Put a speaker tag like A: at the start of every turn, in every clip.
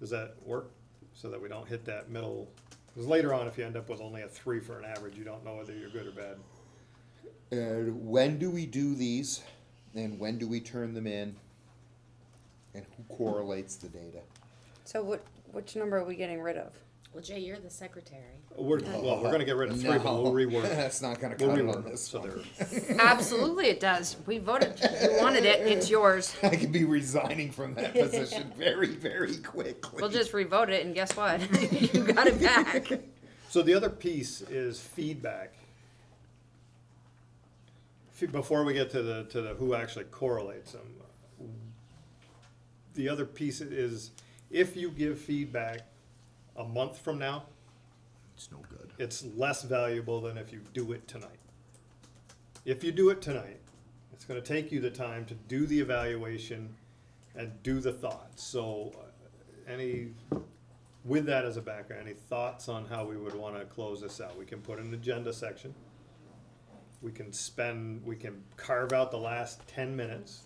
A: Does that work? So that we don't hit that middle, because later on, if you end up with only a three for an average, you don't know whether you're good or bad.
B: And when do we do these? And when do we turn them in? And who correlates the data?
C: So what, which number are we getting rid of?
D: Well, Jay, you're the secretary.
A: We're, well, we're gonna get rid of three, but we'll
B: No,
A: rework.
B: That's not gonna
A: We'll
B: cut it on
A: rework,
B: this
A: so
B: one.
A: there,
D: Absolutely, it does. We voted. You wanted it. It's yours.
B: I could be resigning from that position very, very quickly.
D: We'll just revote it, and guess what? you got it back.
A: so the other piece is feedback. Fe- Before we get to the, to the who actually correlates them, the other piece is, if you give feedback a month from now,
B: It's no good.
A: it's less valuable than if you do it tonight. If you do it tonight, it's gonna take you the time to do the evaluation and do the thoughts, so uh, any, with that as a background, any thoughts on how we would wanna close this out? We can put an agenda section. We can spend, we can carve out the last ten minutes.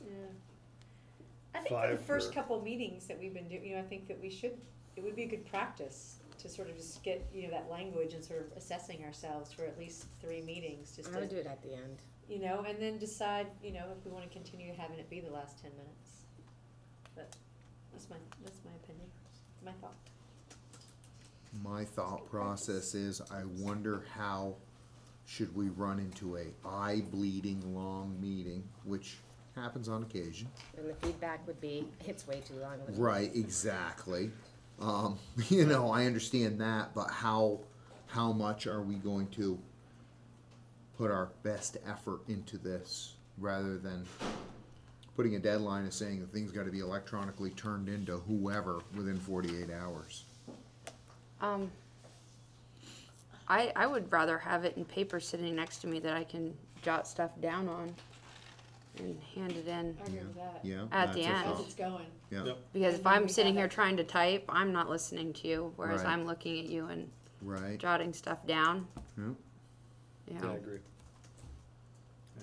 E: I think for the
A: Five
E: first
A: or-
E: couple meetings that we've been doing, you know, I think that we should, it would be a good practice to sort of just get, you know, that language and sort of assessing ourselves for at least three meetings, just
D: I'm gonna
E: to,
D: do it at the end.
E: you know, and then decide, you know, if we wanna continue having it be the last ten minutes. But that's my, that's my opinion, my thought.
B: My thought process is, I wonder how should we run into a eye-bleeding long meeting, which happens on occasion.
D: And the feedback would be, it's way too long.
B: Right, exactly. Um, you know, I understand that, but how, how much are we going to put our best effort into this rather than putting a deadline and saying the thing's gotta be electronically turned into whoever within forty-eight hours?
C: Um, I, I would rather have it in paper sitting next to me that I can jot stuff down on and hand it in.
E: I agree with that.
B: Yeah?
C: At
B: that's a
C: the end.
E: As
B: thought.
E: it's going,
B: Yeah,
A: Yep.
C: Because if
E: And then
C: I'm
E: we
C: sitting
E: have
C: here
E: it.
C: trying to type, I'm not listening to you, whereas
B: Right.
C: I'm looking at you and
B: right,
C: jotting stuff down,
B: yeah.
C: you
A: Yeah, I
C: know.
A: agree.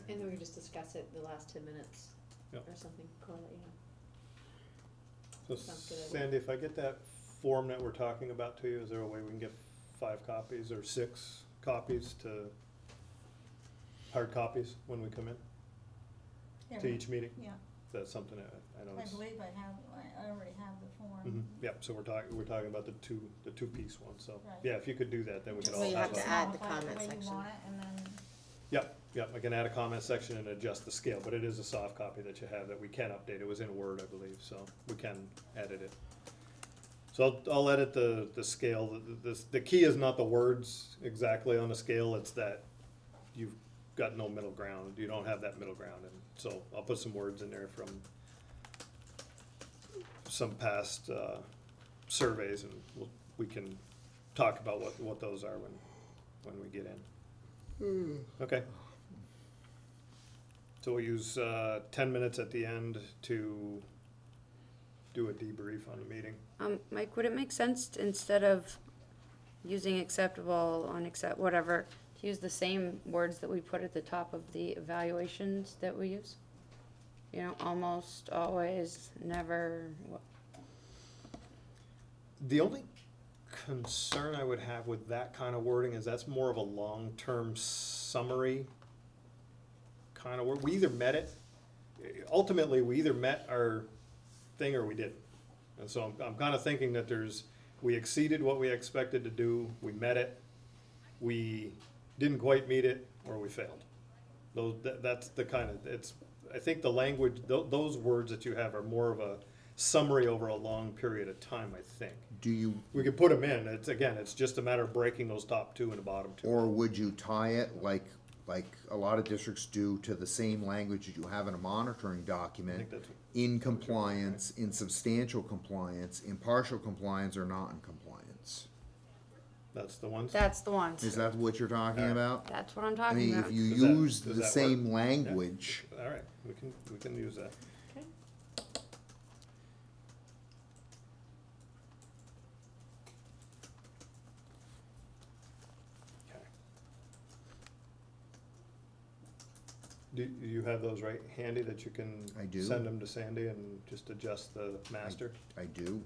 E: and then we just discuss it the last ten minutes, or
A: Yep.
E: something, call it,
A: So
E: you know. Sounds good.
A: Sandy, if I get that form that we're talking about to you, is there a way we can get five copies or six copies to, hard copies when we come in to
F: Yeah,
A: each meeting?
F: yeah.
A: That's something that I know
F: I
A: it's,
F: believe I have, I already have the
A: Mhm.
F: form.
A: yep, so we're talking, we're talking about the two, the two-piece one, so,
F: Right.
A: yeah, if you could do that, then we could
F: Just
A: all
D: So you
A: have
D: have
A: a.
D: to add the
F: modify it
D: comment
F: way you
D: section.
F: want it, And then,
A: Yep, yep, I can add a comment section and adjust the scale, but it is a soft copy that you have that we can update, it was in Word, I believe, so we can edit it. So I'll, I'll edit the, the scale, The- the, the, the key is not the words exactly on the scale, it's that you've got no middle ground, you don't have that middle ground, and so I'll put some words in there from some past, uh, surveys, and we'll, we can talk about what, what those are when, when we get in. Okay. So we'll use uh, ten minutes at the end to do a debrief on the meeting.
C: Um, Mike, would it make sense to- instead of using acceptable, unaccept, whatever, to use the same words that we put at the top of the evaluations that we use? You know, almost, always, never, wha-
A: The only concern I would have with that kind of wording is that's more of a long-term summary kind of word. We either met it, ultimately, we either met our thing or we didn't. And so I'm, I'm kind of thinking that there's, we exceeded what we expected to do, we met it, we didn't quite meet it, or we failed. Those, that, that's the kind of, it's, I think the language, tho- those words that you have are more of a summary over a long period of time, I think.
B: Do you,
A: We could put them in, it's, again, it's just a matter of breaking those top two and the bottom two.
B: Or would you tie it like, like a lot of districts do to the same language that you have in a monitoring
A: I think
B: document?
A: that's-
B: In compliance, in substantial compliance, in partial compliance, or not in compliance?
A: That's the ones.
C: that's the
B: Is
C: ones,
B: that what you're talking about?
C: that's what I'm
B: I
C: talking
B: mean,
C: about.
B: if you
A: Does that-
B: use
A: does
B: the
A: that
B: same language,
A: All right, we can, we can use that.
E: Okay.
A: Okay. Do, do you have those right handy that you can?
B: I do.
A: Send them to Sandy and just adjust the master?
B: I do.